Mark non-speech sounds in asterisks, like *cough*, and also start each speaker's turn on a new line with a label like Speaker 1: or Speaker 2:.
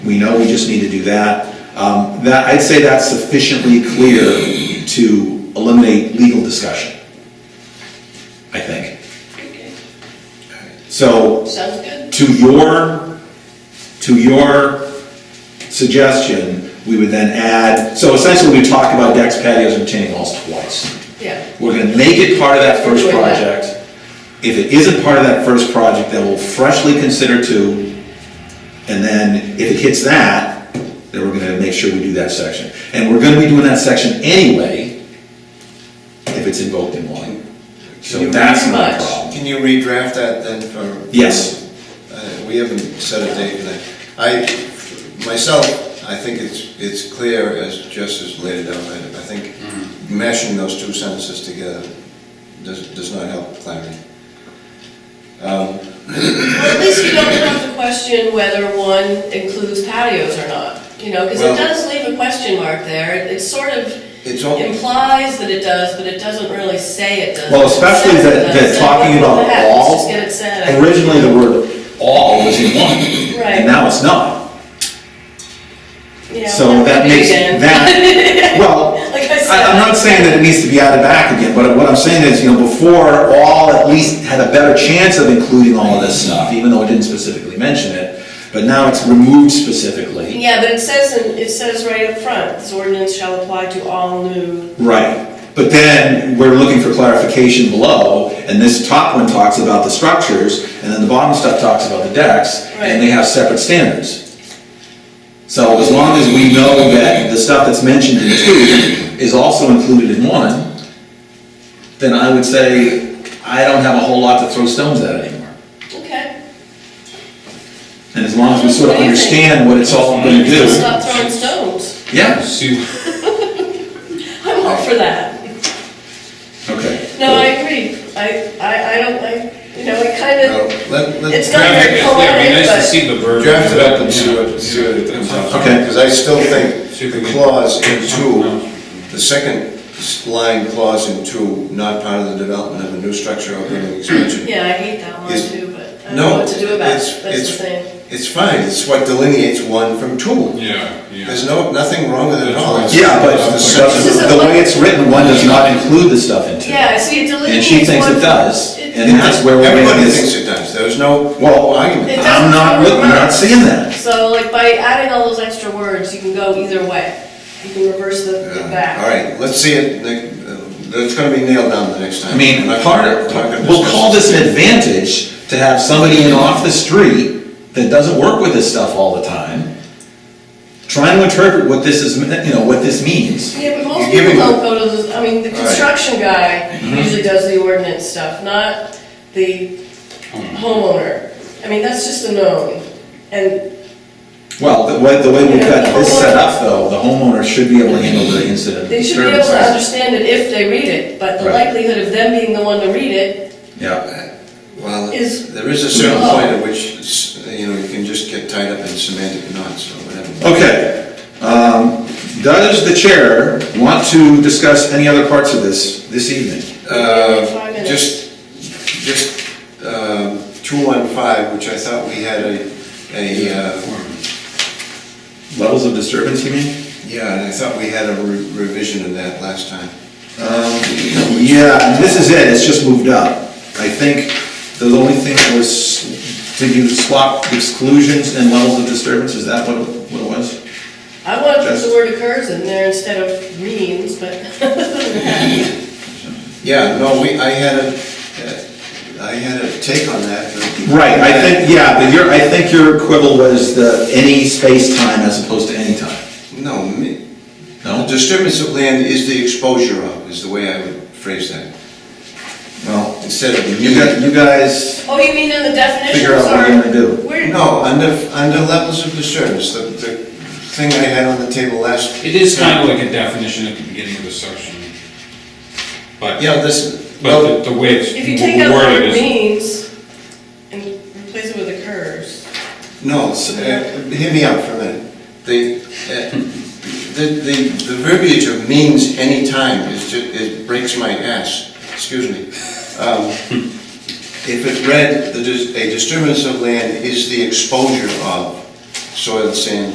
Speaker 1: We know we just need to do that. Um, That, I'd say that's sufficiently clear to eliminate legal discussion, I think.
Speaker 2: Okay.
Speaker 1: So
Speaker 2: Sounds good.
Speaker 1: to your, to your suggestion, we would then add, so essentially we talked about decks, patios, and retaining walls twice.
Speaker 2: Yeah.
Speaker 1: We're gonna make it part of that first
Speaker 2: We're doing that.
Speaker 1: project. If it isn't part of that first project, then we'll freshly consider two. And then if it hits that, then we're gonna make sure we do that section. And we're gonna be doing that section anyway, if it's invoked in one. So that's not a
Speaker 2: Much.
Speaker 1: problem.
Speaker 3: Can you redraft that then for?
Speaker 1: Yes.
Speaker 3: Uh, We haven't set a date for that. I, myself, I think it's, it's clear as just as laid out. I I think
Speaker 4: Mm-hmm.
Speaker 3: mashing those two sentences together does, does not help clarity.
Speaker 2: Well, at least you don't have to question whether one includes patios or not, you know, because
Speaker 3: Well-
Speaker 2: it does leave a question mark there. It- It sort of
Speaker 3: It's all-
Speaker 2: implies that it does, but it doesn't really say it does.
Speaker 1: Well,
Speaker 2: It
Speaker 1: especially
Speaker 2: says it
Speaker 1: that,
Speaker 2: does.
Speaker 1: that
Speaker 2: So
Speaker 1: talking
Speaker 2: what
Speaker 1: about
Speaker 2: the heck? Let's
Speaker 1: all,
Speaker 2: just get it said.
Speaker 1: originally the word all was in one.
Speaker 2: Right.
Speaker 1: And now it's not.
Speaker 2: Yeah,
Speaker 1: So that
Speaker 2: maybe
Speaker 1: makes
Speaker 2: again.
Speaker 1: that, well,
Speaker 2: *laughs* Like I said.
Speaker 1: I- I'm not saying that it needs to be added back again, but what I'm saying is, you know, before, all at least had a better chance of including all of this stuff, even though it didn't specifically mention it, but now it's removed specifically.
Speaker 2: Yeah, but it says, in- it says right up front, this ordinance shall apply to all new,
Speaker 1: Right, but then we're looking for clarification below, and this top one talks about the structures, and then the bottom stuff talks about the decks, and they
Speaker 2: Right.
Speaker 1: have separate standards. So as long as we know that the stuff that's mentioned in two is also included in one, then I would say, I don't have a whole lot to throw stones at anymore.
Speaker 2: okay,
Speaker 1: And as long as we sort of understand what it's all gonna
Speaker 2: just
Speaker 1: do,
Speaker 2: stop throwing stones.
Speaker 1: yeah,
Speaker 4: Sue,
Speaker 2: I'm all for that.
Speaker 1: okay.
Speaker 2: No, I agree. I, I, I don't, I, you know, it
Speaker 3: Well,
Speaker 2: kind of,
Speaker 3: Let, let.
Speaker 2: It's not
Speaker 4: draft
Speaker 2: very
Speaker 4: it, it'd be nice
Speaker 2: polite,
Speaker 4: to see the verb.
Speaker 3: Draft it up and see what, see what it comes out.
Speaker 1: Okay.
Speaker 3: Because I still think
Speaker 4: See if we
Speaker 3: the
Speaker 4: can-
Speaker 3: clause in two, the second s- line clause in two, not part of the development of a new structure or building expansion.
Speaker 2: yeah, I hate that one
Speaker 3: It's-
Speaker 2: too, but I don't know
Speaker 3: No,
Speaker 2: what to do about
Speaker 3: it's,
Speaker 2: it. That's the
Speaker 3: it's,
Speaker 2: thing.
Speaker 3: it's fine, it's what delineates one from two.
Speaker 4: Yeah, yeah.
Speaker 3: There's no, nothing wrong with it at all. It's-
Speaker 1: Yeah, but
Speaker 3: it's
Speaker 2: This is
Speaker 1: but
Speaker 2: a-
Speaker 1: the way it's written, one does not include the stuff in two.
Speaker 2: Yeah, I see, it delineates.
Speaker 1: And she thinks
Speaker 2: one-
Speaker 1: it does, and
Speaker 2: It-
Speaker 1: that's where we're making
Speaker 3: Everybody thinks
Speaker 1: this,
Speaker 3: it does, there's no,
Speaker 1: Well,
Speaker 3: well, argument.
Speaker 2: It does.
Speaker 1: I'm not, look- I'm not seeing that.
Speaker 2: So like by adding all those extra words, you can go either way. You can reverse the, the back.
Speaker 3: Uh, All right, let's see it, Nick, uh, it's gonna be nailed down the next time.
Speaker 1: I mean,
Speaker 3: I'm not
Speaker 1: part
Speaker 3: gonna-
Speaker 1: of,
Speaker 3: I'm not gonna
Speaker 1: we'll
Speaker 3: discuss
Speaker 1: call this an advantage to have somebody in off the street that doesn't work with this stuff all the time, trying to interpret what this is, you know, what this means.
Speaker 2: Yeah, but most people
Speaker 3: You're giving
Speaker 2: don't go to the, I mean, the
Speaker 3: All right.
Speaker 2: construction guy
Speaker 1: Mm-hmm.
Speaker 2: usually does the ordinance stuff, not the
Speaker 1: Hmm.
Speaker 2: homeowner. I mean, that's just a known. And,
Speaker 1: Well, the way, the way we've got this set up though, the homeowner should be able to handle the incident.
Speaker 2: They should be able to
Speaker 1: disturbances.
Speaker 2: understand it if they read it, but the
Speaker 1: Right.
Speaker 2: likelihood of them being the one to read it,
Speaker 1: Yeah,
Speaker 3: Well,
Speaker 2: is-
Speaker 3: there is a certain
Speaker 2: No.
Speaker 3: point at which, s- you know, you can just get tied up in semantic knots or whatever.
Speaker 1: okay. Um, does the chair want to discuss any other parts of this, this evening?
Speaker 3: Uh,
Speaker 2: Five minutes.
Speaker 3: Just, just um, 215, which I thought we had a, a, uh,
Speaker 1: Levels of disturbance, you mean?
Speaker 3: yeah, and I thought we had a re- revision of that last time.
Speaker 1: Yeah, and this is it, it's just moved up. I think the only thing was, did you swap exclusions and levels of disturbance, is that what what it was?
Speaker 2: I want to put
Speaker 1: Just-
Speaker 2: the word occurs in there instead of means, but. *laughs*
Speaker 3: Yeah, no, we, I had a, uh, I had a take on that. but-
Speaker 1: Right, I think, yeah, but your, I think your quibble was the any space-time as opposed to any time.
Speaker 3: No, me- the
Speaker 1: No?
Speaker 3: disturbance of land is the exposure of, is the way I would phrase that.
Speaker 1: Well,
Speaker 3: Instead of
Speaker 1: you
Speaker 3: me.
Speaker 1: got, you guys,
Speaker 2: Oh, you mean in the definition?
Speaker 1: Figure out what
Speaker 2: Sorry.
Speaker 1: you're gonna do.
Speaker 2: Where-
Speaker 3: No, under, under levels of disturbance, the, the thing I had on the table last.
Speaker 4: It is kind of like a definition at the beginning of the section. But,
Speaker 3: Yeah, this,
Speaker 4: but
Speaker 3: well,
Speaker 4: the the way
Speaker 2: If you take out
Speaker 4: it's
Speaker 2: the word
Speaker 4: worded is.
Speaker 2: means and replace it with occurs.
Speaker 3: no, s- uh, hear me out for a minute. The, uh, the, the the verbiage of means anytime is ju, it breaks my ass, excuse me. Um, If it read, the dis- a disturbance of land is the exposure of soil, sand,